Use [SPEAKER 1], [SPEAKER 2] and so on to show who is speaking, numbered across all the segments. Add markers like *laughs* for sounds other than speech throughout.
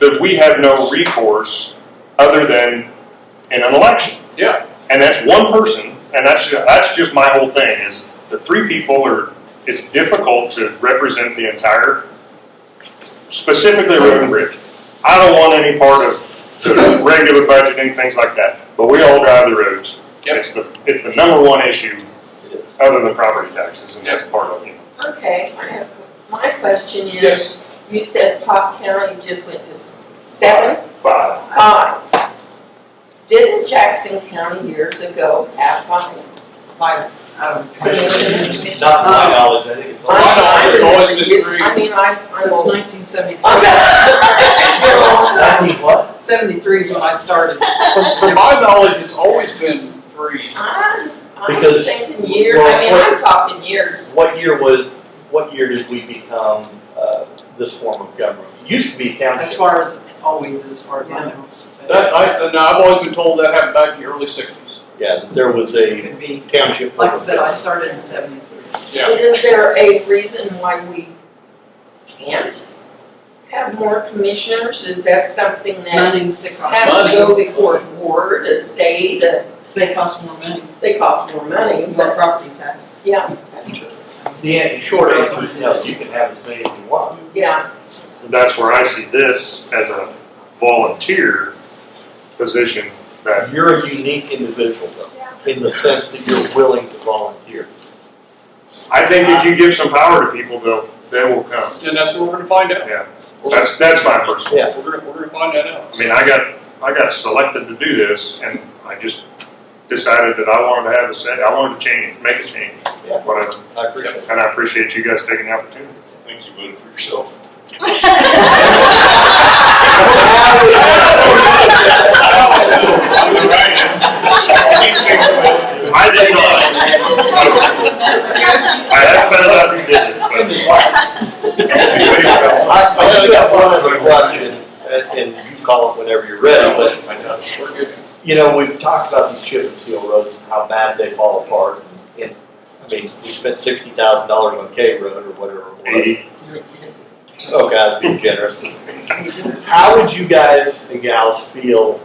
[SPEAKER 1] that we have no recourse other than in an election.
[SPEAKER 2] Yeah.
[SPEAKER 1] And that's one person, and that's, ju- that's just my whole thing, is the three people are, it's difficult to represent the entire, specifically road and bridge. I don't want any part of the regular budgeting, things like that, but we all drive the roads.
[SPEAKER 2] Yep.
[SPEAKER 1] It's the, it's the number one issue, other than property taxes, and that's part of it.
[SPEAKER 3] Okay, I have, my question
[SPEAKER 2] Yes.
[SPEAKER 3] is, you said Pop County just went to s- seven,
[SPEAKER 1] Five,
[SPEAKER 3] five. Didn't Jackson County years ago have five?
[SPEAKER 4] Five, um,
[SPEAKER 3] Commissioners.
[SPEAKER 5] Not to my knowledge, I think it's.
[SPEAKER 2] Well, I know, it's always been three.
[SPEAKER 3] I mean, I, I'm
[SPEAKER 4] Since
[SPEAKER 3] old.
[SPEAKER 4] nineteen
[SPEAKER 3] I
[SPEAKER 5] Nineteen what?
[SPEAKER 4] Seventy-three is when I started.
[SPEAKER 2] From, from my knowledge, it's always been three.
[SPEAKER 3] *laughs* I'm
[SPEAKER 5] Because-
[SPEAKER 3] thinking years, I mean, I'm talking years.
[SPEAKER 5] What year was, what year did we become, uh, this form of government? It used to be
[SPEAKER 4] As
[SPEAKER 5] county.
[SPEAKER 4] far as, always as far as I know.
[SPEAKER 2] That, I, no, I've always been told that happened back in the early sixties.
[SPEAKER 5] Yeah, that there was
[SPEAKER 4] It
[SPEAKER 5] a
[SPEAKER 4] could be,
[SPEAKER 5] township. form
[SPEAKER 4] like I
[SPEAKER 5] of
[SPEAKER 4] said, I
[SPEAKER 5] government.
[SPEAKER 4] started in seventy-three.
[SPEAKER 2] Yeah.
[SPEAKER 3] Is there a reason why we can't have more commissioners? Is that something that
[SPEAKER 4] Money, they cost,
[SPEAKER 3] has to
[SPEAKER 2] money.
[SPEAKER 3] go before a board, a state, a
[SPEAKER 4] they cost more money,
[SPEAKER 3] They cost more money,
[SPEAKER 4] more
[SPEAKER 3] but
[SPEAKER 4] property tax.
[SPEAKER 3] yeah, that's true.
[SPEAKER 5] The an- short answer is no, you can have as many as you want.
[SPEAKER 3] *laughs* Yeah,
[SPEAKER 1] that's where I see this as a volunteer position that
[SPEAKER 5] You're a unique individual though, in the sense that you're willing to volunteer.
[SPEAKER 1] I think if you give some power to people, they'll they will come.
[SPEAKER 2] And that's what we're gonna find out.
[SPEAKER 1] Yeah, that's that's my personal.
[SPEAKER 5] Yeah.
[SPEAKER 2] We're gonna, we're gonna find that out.
[SPEAKER 1] I mean, I got I got selected to do this, and I just decided that I wanted to have a say. I wanted to change, make a change,
[SPEAKER 5] Yeah.
[SPEAKER 1] whatever.
[SPEAKER 5] I appreciate it.
[SPEAKER 1] And I appreciate you guys taking the opportunity. I think you voted for yourself. I did not. I have found out who did it, but.
[SPEAKER 5] I, I do have one other question, and and you call it whenever you're ready, but
[SPEAKER 2] Oh We're good.
[SPEAKER 5] You know, we've talked about these chip and seal roads and how bad they fall apart. And, I mean, we spent sixty thousand dollars on K Road or whatever it was.
[SPEAKER 1] Eighty.
[SPEAKER 5] Oh, God, being generous. How would you guys and gals feel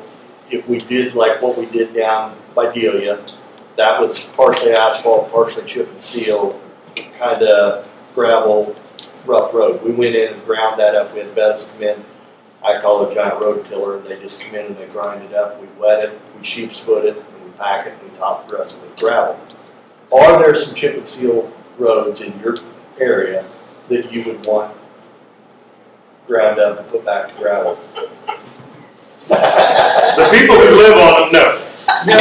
[SPEAKER 5] if we did like what we did down by Delia? That was partially asphalt, partially chip and seal, kind of gravel, rough road. We went in and ground that up. We had Bev's come in. I call it a giant road tiller, and they just come in and they grind it up. We wet it, we sheep's foot it, and we pack it, and we top dress it with gravel. Are there some chip and seal roads in your area that you would want ground up and put back to gravel.
[SPEAKER 1] The people who live on them, no.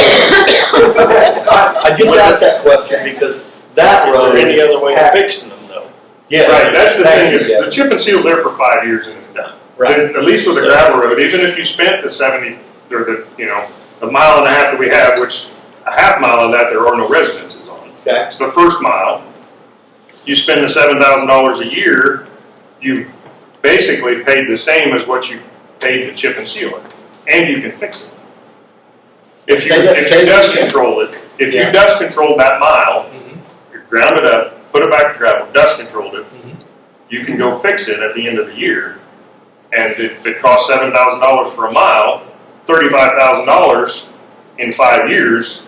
[SPEAKER 5] I I just asked that question because that road.
[SPEAKER 6] Is there any other way of
[SPEAKER 5] had-
[SPEAKER 6] fixing them though?
[SPEAKER 5] Yeah.
[SPEAKER 1] Right, that's the thing,
[SPEAKER 5] thank
[SPEAKER 1] is
[SPEAKER 5] you,
[SPEAKER 1] the chip and seal's there for five years and it's done.
[SPEAKER 6] Right.
[SPEAKER 1] At- At least with a gravel road, even if you spent the seventy, or the, you know, the mile and a half that we have, which a half mile of that, there are no residences on.
[SPEAKER 5] Jeff. Okay,
[SPEAKER 1] That's the first mile. You spend the seven thousand dollars a year, you basically paid the same as what you paid to chip and seal it, and you can fix it. If you,
[SPEAKER 5] Say that-
[SPEAKER 1] if
[SPEAKER 5] say
[SPEAKER 1] you
[SPEAKER 5] that
[SPEAKER 1] dust
[SPEAKER 5] again.
[SPEAKER 1] control it, if you
[SPEAKER 5] Yeah.
[SPEAKER 1] dust control that mile,
[SPEAKER 5] Mhm.
[SPEAKER 1] you ground it up, put it back to gravel, dust controlled it,
[SPEAKER 5] Mhm.
[SPEAKER 1] you can go fix it at the end of the year. And if it costs seven thousand dollars for a mile, thirty-five thousand dollars in five years,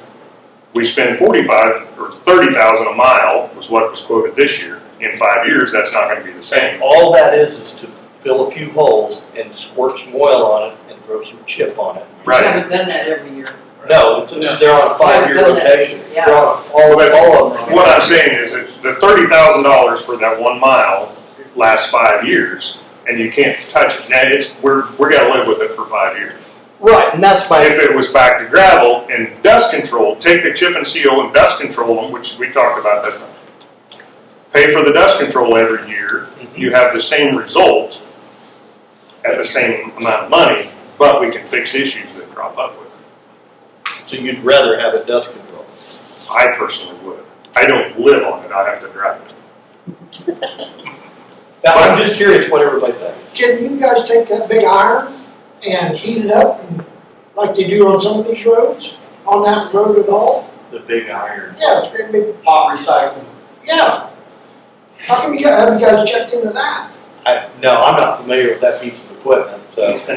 [SPEAKER 1] we spend forty-five or thirty thousand a mile was what was quoted this year. In five years, that's not gonna be the same.
[SPEAKER 5] And all that is, is to fill a few holes and squirt some oil on it and throw some chip on it.
[SPEAKER 4] We
[SPEAKER 1] Right.
[SPEAKER 4] haven't done that every year.
[SPEAKER 5] No, it's-
[SPEAKER 2] No.
[SPEAKER 5] they're on a five-year
[SPEAKER 4] Haven't done that.
[SPEAKER 5] rotation.
[SPEAKER 4] Yeah.
[SPEAKER 5] They're on all,
[SPEAKER 1] But-
[SPEAKER 5] all of them.
[SPEAKER 1] What I'm saying is that the thirty thousand dollars for that one mile lasts five years and you can't touch it. Now, it's, we're, we're gonna live with it for five years.
[SPEAKER 5] Right, and that's my,
[SPEAKER 1] If it was back to gravel and dust control, take the chip and seal and dust control them, which we talked about that time. Pay for the dust control every year, you have the same result at the same amount of money, but we can fix issues that crop up with it.
[SPEAKER 5] so you'd rather have a dust control.
[SPEAKER 1] I personally would. I don't live on it, I have to drive it.
[SPEAKER 5] Now, I'm just curious what everybody thinks.
[SPEAKER 7] Can you guys take that big iron and heat it up and like they do on some of these roads, on that road at all?
[SPEAKER 5] The big iron.
[SPEAKER 7] Yeah, it's a big,
[SPEAKER 5] Hot recycling.
[SPEAKER 7] yeah. How come you, have you guys checked into that?
[SPEAKER 5] I, no, I'm not familiar with that piece of the equipment, so.